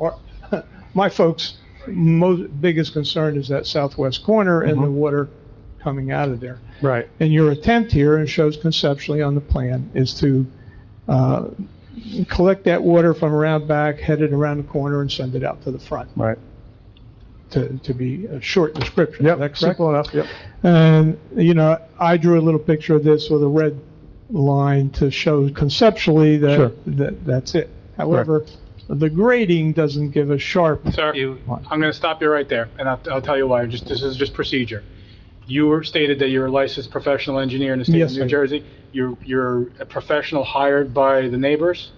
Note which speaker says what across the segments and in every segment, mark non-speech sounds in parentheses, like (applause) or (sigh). Speaker 1: our- (laughs) my folks' most, biggest concern is that southwest corner and the
Speaker 2: Mhm.
Speaker 1: water coming out of there.
Speaker 2: Right.
Speaker 1: And your attempt here, and it shows conceptually on the plan, is to uh, collect that water from around back, head it around the corner, and send it out to the front,
Speaker 2: Right.
Speaker 1: to, to be a short description. Is that
Speaker 2: Yep,
Speaker 1: correct?
Speaker 2: simple enough, yep.
Speaker 1: And, you know, I drew a little picture of this with a red line to show conceptually
Speaker 2: Sure.
Speaker 1: that, that, that's it. However, the grading doesn't give a sharp,
Speaker 3: Sir, you, I'm going to stop you right there, and I'll, I'll tell you why. Just, this is just procedure. You were stated that you're a licensed professional engineer in the state of
Speaker 1: Yes, I
Speaker 3: New
Speaker 1: am.
Speaker 3: Jersey. You're, you're a professional hired by the neighbors?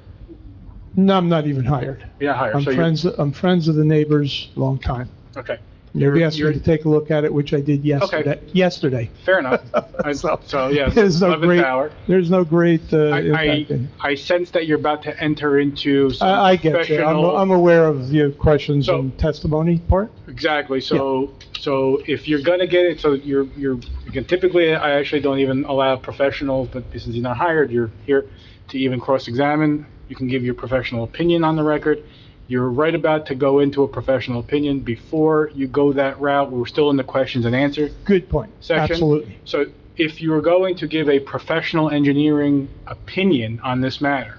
Speaker 1: no, I'm not even hired.
Speaker 3: You're not hired,
Speaker 1: I'm
Speaker 3: so you're,
Speaker 1: friends, I'm friends of the neighbors, long time.
Speaker 3: okay, You're-
Speaker 1: They asked me
Speaker 3: you're-
Speaker 1: to take a look at it, which I did yesterday, yesterday. (laughs)
Speaker 3: fair enough. I-
Speaker 1: So-
Speaker 3: So, yeah,
Speaker 1: (laughs) There's no
Speaker 3: 11th
Speaker 1: great-
Speaker 3: hour.
Speaker 1: There's no great, uh,
Speaker 3: I,
Speaker 1: impact. in-
Speaker 3: I, I sense that you're about to enter into some
Speaker 1: I, I get you. I'm,
Speaker 3: professional-
Speaker 1: I'm aware of your questions
Speaker 3: So-
Speaker 1: and testimony part.
Speaker 3: Exactly, so, so if you're gonna get it, so you're, you're, you can typically, I actually don't even allow professionals, but since you're not hired, you're here to even cross-examine, you can give your professional opinion on the record. You're right about to go into a professional opinion before you go that route, we're still in the questions and answer
Speaker 1: Good point.
Speaker 3: section.
Speaker 1: Absolutely.
Speaker 3: So if you're going to give a professional engineering opinion on this matter,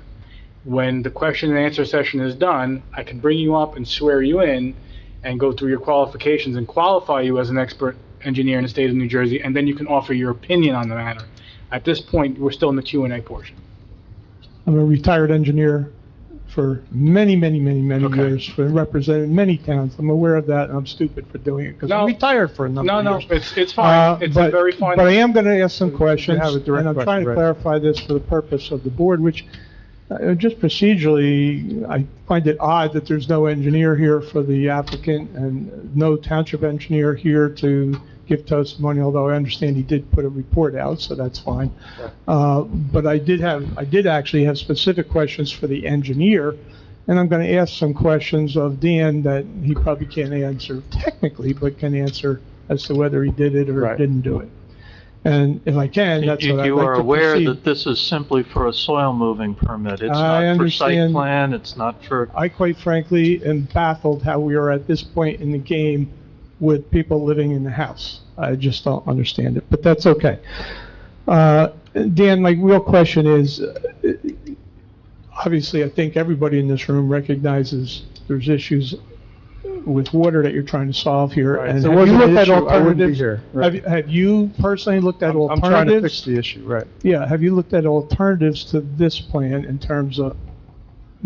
Speaker 3: when the question and answer session is done, I can bring you up and swear you in and go through your qualifications and qualify you as an expert engineer in the state of New Jersey, and then you can offer your opinion on the matter. At this point, we're still in the Q and A portion.
Speaker 1: I'm a retired engineer for many, many, many, many
Speaker 3: Okay.
Speaker 1: years, for represented many towns. I'm aware of that, and I'm stupid for doing it, because
Speaker 3: No.
Speaker 1: I'm retired for a number
Speaker 3: No,
Speaker 1: of
Speaker 3: no,
Speaker 1: years.
Speaker 3: it's, it's
Speaker 1: Uh,
Speaker 3: fine. It's a
Speaker 1: but-
Speaker 3: very fine.
Speaker 1: But I am going to ask some
Speaker 2: You
Speaker 1: questions,
Speaker 2: have a
Speaker 1: and
Speaker 2: direct
Speaker 1: I'm
Speaker 2: question,
Speaker 1: trying to
Speaker 2: right.
Speaker 1: clarify this for the purpose of the board, which, uh, just procedurally, I find it odd that there's no engineer here for the applicant and no township engineer here to give testimony, although I understand he did put a report out, so that's fine. Uh, But I did have, I did actually have specific questions for the engineer, and I'm going to ask some questions of Dan that he probably can't answer technically, but can answer as to whether he did it or
Speaker 2: Right.
Speaker 1: didn't do it. And if I can, that's
Speaker 4: You
Speaker 1: what I'd
Speaker 4: you are
Speaker 1: like to
Speaker 4: aware that
Speaker 1: proceed.
Speaker 4: this is simply for a soil moving permit. It's
Speaker 1: I
Speaker 4: not for site
Speaker 1: understand.
Speaker 4: plan, it's not for,
Speaker 1: I quite frankly am baffled how we are at this point in the game with people living in the house. I just don't understand it, but that's okay. Uh, Dan, my real question is, uh, obviously, I think everybody in this room recognizes there's issues with water that you're trying to solve here.
Speaker 2: Right.
Speaker 1: and
Speaker 2: If there
Speaker 1: have you
Speaker 2: wasn't an
Speaker 1: looked at
Speaker 2: issue, I wouldn't be
Speaker 1: alternatives?
Speaker 2: here. Right.
Speaker 1: Have you- Have you personally looked at
Speaker 2: I'm- I'm
Speaker 1: alternatives?
Speaker 2: trying to fix the issue, right.
Speaker 1: Yeah, have you looked at alternatives to this plan in terms of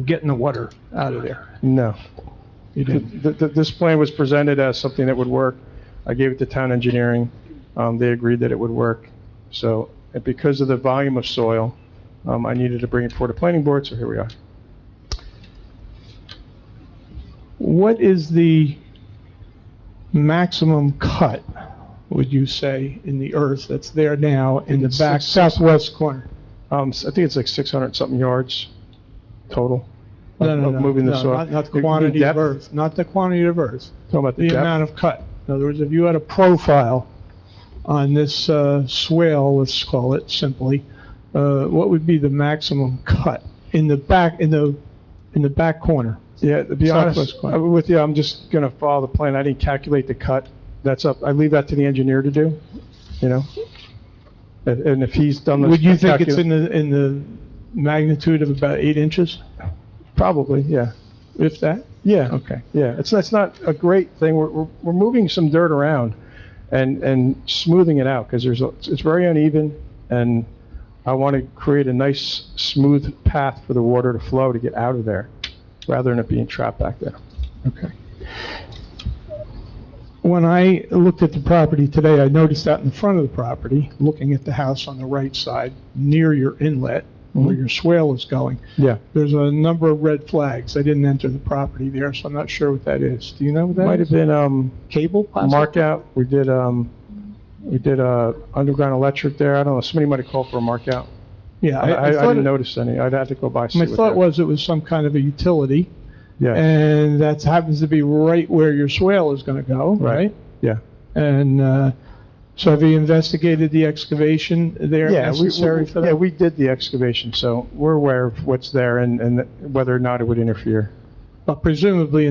Speaker 1: getting the water out of there?
Speaker 2: No.
Speaker 1: You
Speaker 2: Th-
Speaker 1: didn't.
Speaker 2: th- th- This plan was presented as something that would work. I gave it to town engineering. Um, They agreed that it would work. So, and because of the volume of soil, um, I needed to bring it forward to planning board, so here we are.
Speaker 1: What is the maximum cut, would you say, in the earth that's there now in the
Speaker 2: It's
Speaker 1: back
Speaker 2: six-
Speaker 1: southwest corner?
Speaker 2: Um, s- I think it's like 600-something yards total.
Speaker 1: No,
Speaker 2: of-
Speaker 1: no,
Speaker 2: of
Speaker 1: no,
Speaker 2: Moving the
Speaker 1: no,
Speaker 2: soil.
Speaker 1: not- Not
Speaker 2: You
Speaker 1: the
Speaker 2: mean
Speaker 1: quantity of
Speaker 2: depth?
Speaker 1: earth, not the quantity of earth,
Speaker 2: Talking about the
Speaker 1: the
Speaker 2: depth?
Speaker 1: amount of cut. In other words, if you had a profile on this uh, swale, let's call it simply, uh, what would be the maximum cut in the back, in the, in the back corner?
Speaker 2: Yeah, to be honest
Speaker 1: Southwest corner.
Speaker 2: uh, with you, I'm just going to follow the plan. I didn't calculate the cut. That's up, I leave that to the engineer to do, you know? And- And if he's done this.
Speaker 1: Would you think it's
Speaker 2: calcul-
Speaker 1: in the, in the magnitude of about eight inches,
Speaker 2: Probably, yeah.
Speaker 1: if that?
Speaker 2: Yeah.
Speaker 1: Okay.
Speaker 2: Yeah, it's, it's not a great thing. We're, we're, we're moving some dirt around and, and smoothing it out because there's, a- it's very uneven and I want to create a nice smooth path for the water to flow to get out of there rather than it being trapped back there.
Speaker 1: Okay. When I looked at the property today, I noticed out in the front of the property, looking at the house on the right side, near your inlet, where
Speaker 2: Mhm.
Speaker 1: your swale is going,
Speaker 2: Yeah.
Speaker 1: there's a number of red flags. I didn't enter the property there, so I'm not sure what that is. Do you know what that is?
Speaker 2: Might have been, um,
Speaker 1: Cable? possibly?
Speaker 2: mark out. We did, um, we did, uh, underground electric there. I don't know, somebody might have called for a mark out.
Speaker 1: Yeah.
Speaker 2: I, I I
Speaker 1: thought
Speaker 2: didn't
Speaker 1: it-
Speaker 2: notice any. I'd have to go by. see
Speaker 1: My
Speaker 2: what
Speaker 1: thought
Speaker 2: that-
Speaker 1: was it was some kind of a utility,
Speaker 2: Yeah,
Speaker 1: and that happens to be right where your swale is going to go,
Speaker 2: Right.
Speaker 1: right?
Speaker 2: yeah.
Speaker 1: And uh, so have you investigated the excavation there
Speaker 2: Yeah, we-
Speaker 1: necessary
Speaker 2: we-
Speaker 1: for that?
Speaker 2: Yeah, we did the excavation, so we're aware of what's there and, and whether or not it would interfere.
Speaker 1: but presumably